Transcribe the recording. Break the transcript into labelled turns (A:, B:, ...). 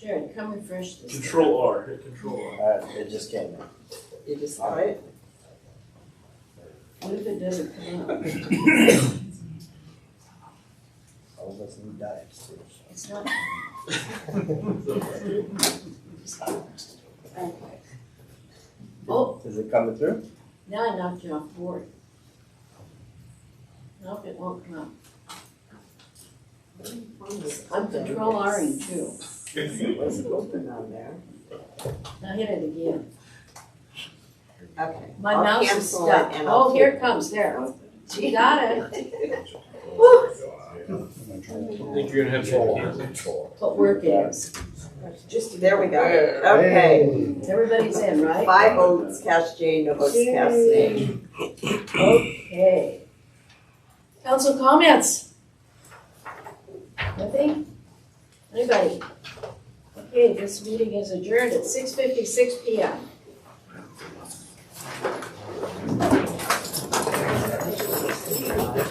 A: Jared, come refresh this.
B: Control R, hit Control R.
C: Uh, it just came in.
A: You just saw it? What if it doesn't come up?
C: All of us need diets too.
A: It's not. Okay. Oh.
C: Is it coming through?
A: Now I knocked you off board. Nope, it won't come up. I'm control R and two.
D: It wasn't open on there.
A: Now hit it again.
D: Okay.
A: My
D: I'll
A: mouse is
D: cancel it
A: stuck.
D: and I'll
A: Oh, here it comes, there. You got it.
B: I think you're gonna have to.
A: What work it is.
D: Just, there we go. Okay.
A: Everybody's in, right?
D: Five votes cast yea, no votes cast nay.
A: Okay. Council comments? Nothing? Anybody? Okay, this meeting is adjourned at six fifty-six P M.